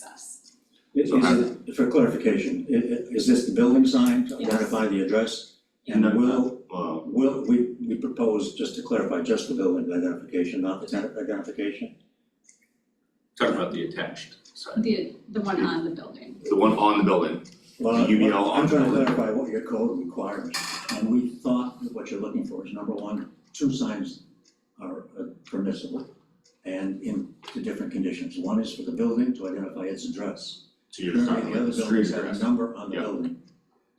access. Is So how- it- for clarification, i- i- is this the building sign to Yes. identify the address? No, And no. will, Well, will, we, we propose, just to clarify, just the building identification, not the tenant identification? talking about the attached sign, The, the one on the building. the one on the building, Well, The UBL I'm trying to on the building. clarify what your code requires, and we thought that what you're looking for is, number one, two signs are uh, permissible and in the different conditions. One is for the building to identify its address. so you're Currently, talking the about other the street buildings have a address, number on the Yeah. building.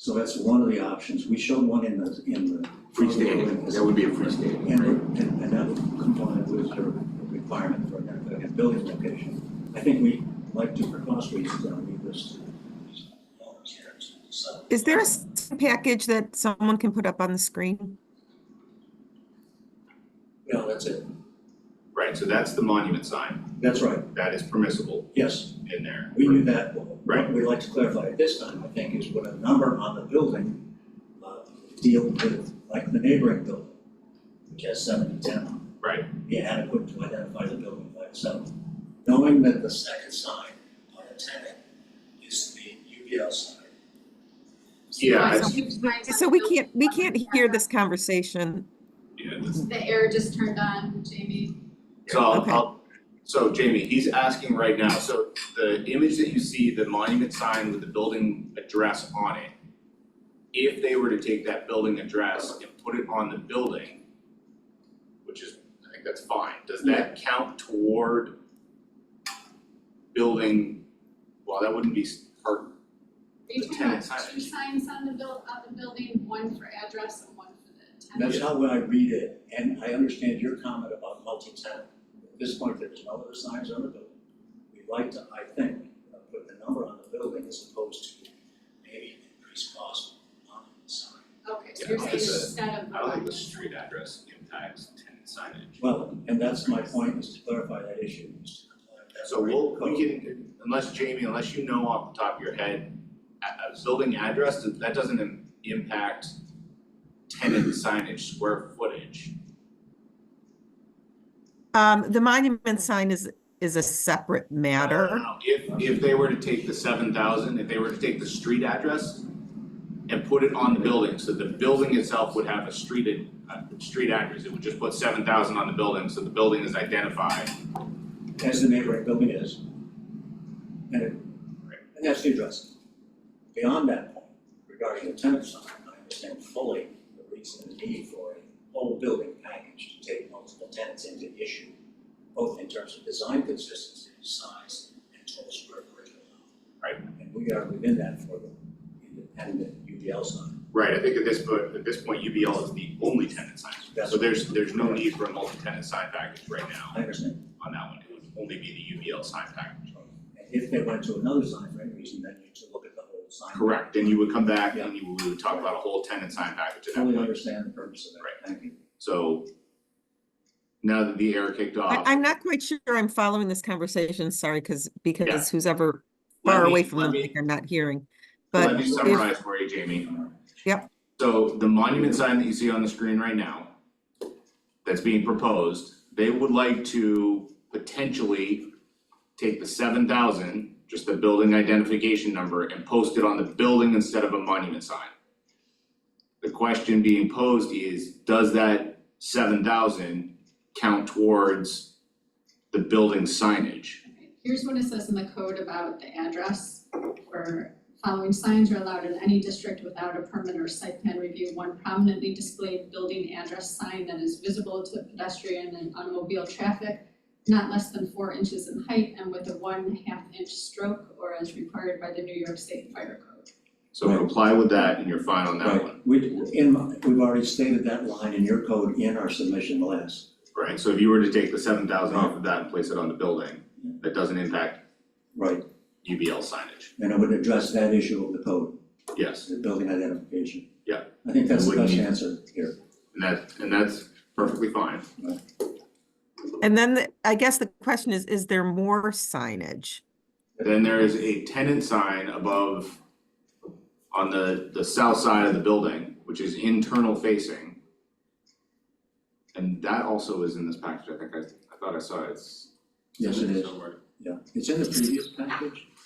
So that's one of the options, we showed one in the, in the, freestanding, that would be a freestanding, right? and, and and that would comply with your requirement for identifying a building location. I think we like to, for cost reasons, don't need this. So, Is there a s- package that someone can put up on the screen? No, that's it, Right, so that's the monument sign, that's right, that is permissible yes, in there. we knew that. What Right. we'd like to clarify at this time, I think, is what a number on the building, uh, deal with, like the neighboring building, which has seven to ten on it. Right, be adequate to identify the building by itself. Knowing that the second sign on the tenant is the UBL sign. yeah, Right, it's- so here's my- So we can't, we can't hear this conversation. yeah, that's- The air just turned on, Jamie. so I'll, Okay. I'll, so Jamie, he's asking right now, so the image that you see, the monument sign with the building address on it, if they were to take that building address and put it on the building, which is, I think that's fine, does that count toward building, well, that wouldn't be s- part They The turned on tenant signage. two signs on the buil- on the building, one for address and one for the tenant. That's how I read it, and I understand your comment about multi-tenant. At this point, there's no other signs on the building. We'd like to, I think, uh, put the number on the building as opposed to maybe increase cost on the sign. Okay, so Yeah, you're no, saying it's a- instead of the I like one. the street address impacts tenant signage. Well, and that's my point, is to clarify that issue, is to comply with that. So we'll, we can, unless Jamie, unless you know off the top of your head, a, a building address, that doesn't im- impact tenant signage square footage. Um, the monument sign is, is a separate matter. Now, If, if they were to take the seven thousand, if they were to take the street address and put it on the building, so the building itself would have a street, ad- a street address, it would just put seven thousand on the building, so the building is identified. as the neighboring building is. And it, and that's the address. Beyond that point, regarding the tenant sign, I understand fully the reason and need for a whole building package to take multiple tenants into issue, both in terms of design consistency, size, and total square footage. Right. And we are within that for the, and the UDL sign. Right, I think at this point, at this point, UBL is the only tenant sign, That's- so there's, there's no need for a multi-tenant sign package right now I understand. on that one, it would only be the UBL sign package. And if they went to another sign for any reason, then you need to look at the whole sign. Correct, then you would come back and you, we would talk about a whole tenant sign package at that Fully point, understand the purpose of that, thank you. so. Now that the air kicked off. I, I'm not quite sure I'm following this conversation, sorry, because, because who's ever let far me- away from the let me- mic, I'm not hearing. Let But me summarize for you, Jamie. Yep. So the monument sign that you see on the screen right now, that's being proposed, they would like to potentially take the seven thousand, just the building identification number, and post it on the building instead of a monument sign. The question being posed is, does that seven thousand count towards the building signage? Here's what it says in the code about the address, where following signs are allowed in any district without a permit or site plan review. One prominently displayed building address sign that is visible to pedestrian and automobile traffic, not less than four inches in height and with a one half inch stroke or as required by the New York State Fire Code. So comply with that and you're fine on that one, Right, we, in, we've already stated that line in your code in our submission last. right? So if you were to take the seven thousand off of that and place it on the building, that doesn't impact Right. UBL signage, And it would address that issue of the code, yes. the building identification. Yeah. I think that's the Wouldn't best need- answer here. And that, and that's perfectly fine. And then the- I guess the question is, is there more signage? Then there is a tenant sign above on the, the south side of the building, which is internal facing. And that also is in this package, I think I, I thought I saw it, it's Yes, it is, somewhere. Yeah, it's in the previous package,